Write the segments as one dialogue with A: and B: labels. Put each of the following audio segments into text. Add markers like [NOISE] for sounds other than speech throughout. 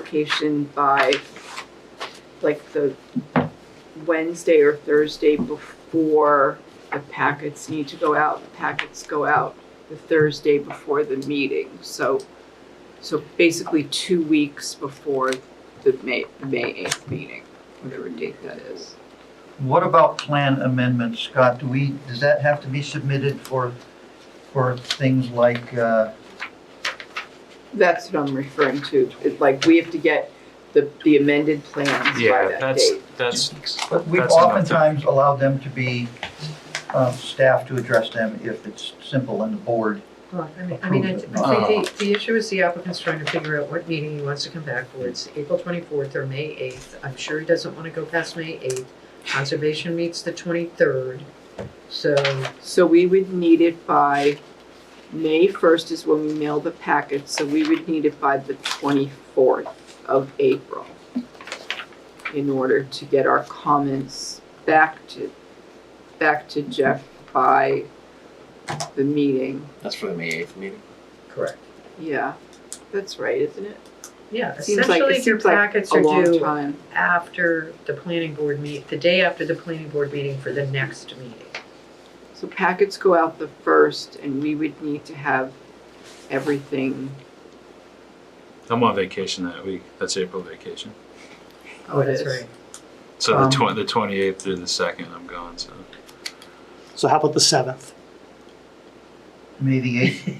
A: application by like the Wednesday or Thursday before the packets need to go out. The packets go out the Thursday before the meeting, so, so basically two weeks before the May, May eighth meeting, whatever date that is.
B: What about plan amendments, Scott? Do we, does that have to be submitted for, for things like, uh,
A: That's what I'm referring to, it's like, we have to get the, the amended plans by
C: Yeah,
A: that
C: that's,
A: date.
C: that's,
B: but we've
C: That's enough to-
B: oftentimes allowed them to be, um, staff to address them if it's simple and the board.
D: Well, I mean, I mean, I I think
A: Oh.
D: the, the issue is the applicant's trying to figure out what meeting he wants to come back for. It's April twenty-fourth or May eighth. I'm sure he doesn't want to go past May eighth. Conservation meets the twenty-third, so,
A: So we would need it by, May first is when we mail the packet, so we would need it by the twenty-fourth of April in order to get our comments back to, back to Jeff by the meeting.
E: That's for the May eighth meeting.
D: correct.
A: Yeah, that's right, isn't it?
D: Yeah,
A: Seems like,
D: essentially
A: it
D: your
A: seems like
D: packets
A: a
D: are
A: long
D: due
A: time.
D: after the planning board meet, the day after the planning board meeting for the next meeting.
A: So packets go out the first and we would need to have everything,
C: I'm on vacation that week. That's April vacation.
A: Oh, it
D: That's
A: is.
D: right.
C: So the
B: Um,
C: twen- the twenty eighth through the second, I'm gone, so.
F: So how about the seventh? [LAUGHS]
B: May the
D: [LAUGHS]
B: 8th.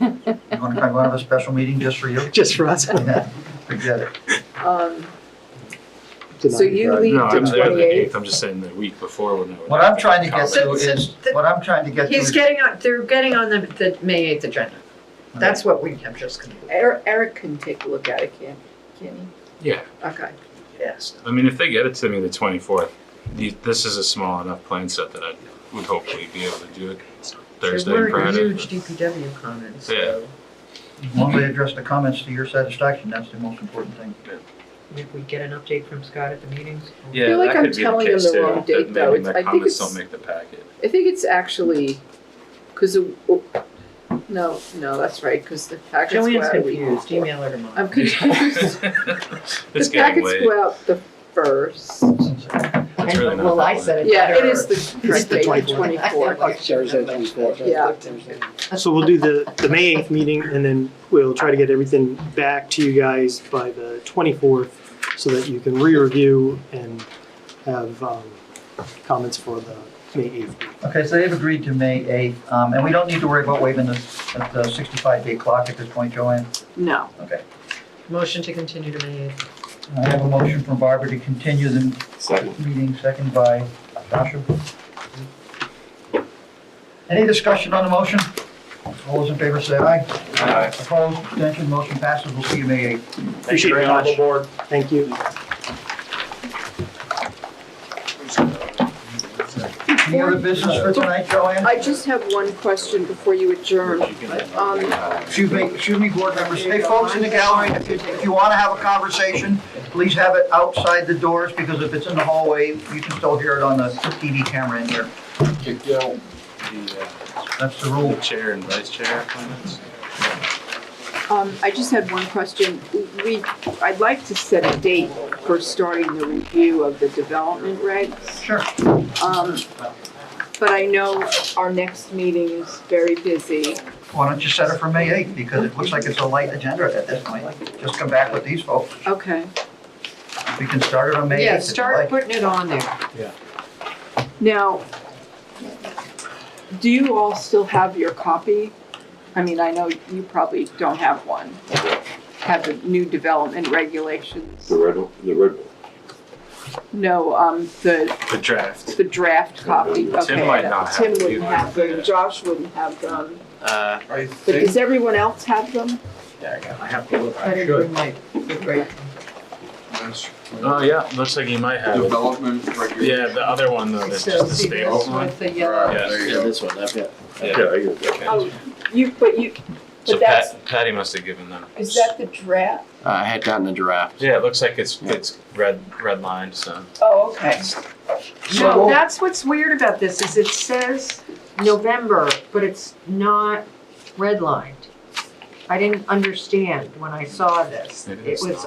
B: You want to talk about a special meeting just for
D: [LAUGHS]
B: you?
F: Just for
A: [LAUGHS]
F: us.
B: Yeah, Forget it.
A: um, so you leave
C: No, I'm
A: the
C: there the
A: twenty-eighth?
C: eighth. I'm just saying the week before when I would.
B: What I'm trying to get to
D: So- so
B: is,
D: the-
B: what I'm trying to get to
D: He's
B: is,
D: getting on, they're getting on the, the May eighth agenda. That's what we, I'm just gonna.
A: Eric, Eric can take a look at it, can, can he?
C: Yeah,
A: Okay.
D: Yes.
C: I mean, if they get it to me the twenty fourth, this is a small enough plan set that I would hopefully be able to do it Thursday
D: There
C: and
D: were
C: Friday.
D: huge DPW comments,
C: Yeah.
D: so
B: one way to address the comments to your satisfaction, that's the most important thing.
D: if we get an update from Scott at the meetings.
A: I feel like I'm telling them the wrong date, though.
C: Maybe
A: It's-
C: my
A: I think
C: comments
A: it's-
C: don't make the
A: [LAUGHS]
C: packet.
A: I think it's actually, cause, the- oh, no, no, that's right, cause the packets go
D: Joanne's
A: out a week
D: confused,
A: before.
D: email her tomorrow.
A: I'm confused.
C: [LAUGHS] It's
A: The
C: getting
A: packets
C: late.
A: go out the first.
C: It's really not
G: Well,
C: that
G: I
C: late.
G: said it.
A: Yeah, it
G: better.
D: [LAUGHS]
A: is the correct
F: the
A: date, the
F: 24th.
A: twenty-fourth.
G: I Sarah said it was four.
A: Yeah.
F: So we'll do the, the May eighth meeting and then we'll try to get everything back to you guys by the twenty-fourth so that you can re-review and have, um, comments for the May eighth.
B: Okay, so they've agreed to May 8th, um, and we don't need to worry about waiving the, the 65-day clock at this point, Joanne.
A: No,
B: Okay.
D: Motion to continue to May eighth.
B: I have a motion from Barbara to continue the
E: Second.
B: meeting, second by Joshua. Any discussion on the motion? All those in favor say aye.
E: Aye.
B: Opposed, abstention, motion passes, we'll see you May 8th.
F: Appreciate it very much. Thank you.
B: Any other business for tonight, Joanne?
A: I just have one question before you adjourn. Um,
B: Excuse me, excuse me, board members. Hey, folks in the gallery, if you, if you want to have a conversation, please have it outside the doors because if it's in the hallway, you can still hear it on the TV camera in here.
C: The,
B: That's the
C: uh,
B: rule.
C: the chair and vice chair appointments.
A: Um, I just had one question. We, I'd like to set a date for starting the review of the development regs.
B: Sure.
A: Um, but I know our next meeting is very busy.
B: Why don't you set it for May 8th because it looks like it's a light agenda at this point. Just come back with these folks.
A: Okay.
B: We can start it on May 8th.
D: Yeah,
B: if you
D: start
B: like.
D: putting it on there.
A: Now, do you all still have your copy? I mean, I know you probably don't have one. Have the new development regulations?
H: The red, one- the red one.
A: No, um, the,
C: The draft.
A: the draft copy.
C: Tim
A: Okay,
C: might not have
A: Tim
C: it.
A: wouldn't have them. Josh wouldn't have them.
E: Uh,
A: But does everyone else have them?
E: I have to look.
D: I didn't bring my, right,
C: Oh, yeah, looks like you might have it.
H: Development regulation.
C: Yeah, the other one though, that's
D: so
C: just the
D: see
C: stable
D: this
C: one.
D: with the
H: Right,
D: yellow.
H: there you
E: Yeah,
H: go.
E: this one, I've got.
H: Yeah, I get that.
A: Oh, you, but you,
C: So
A: but that's,
C: Pat, Patty must have given them.
A: is that the draft?
E: Uh, I had gotten a draft.
C: Yeah, it looks like it's,
E: Yeah.
C: it's red, red lined, so.
A: Oh, okay.
D: No, that's what's weird about this, is it says November, but it's not redlined. I didn't understand when I saw this.
C: Maybe
D: It
C: that's
D: was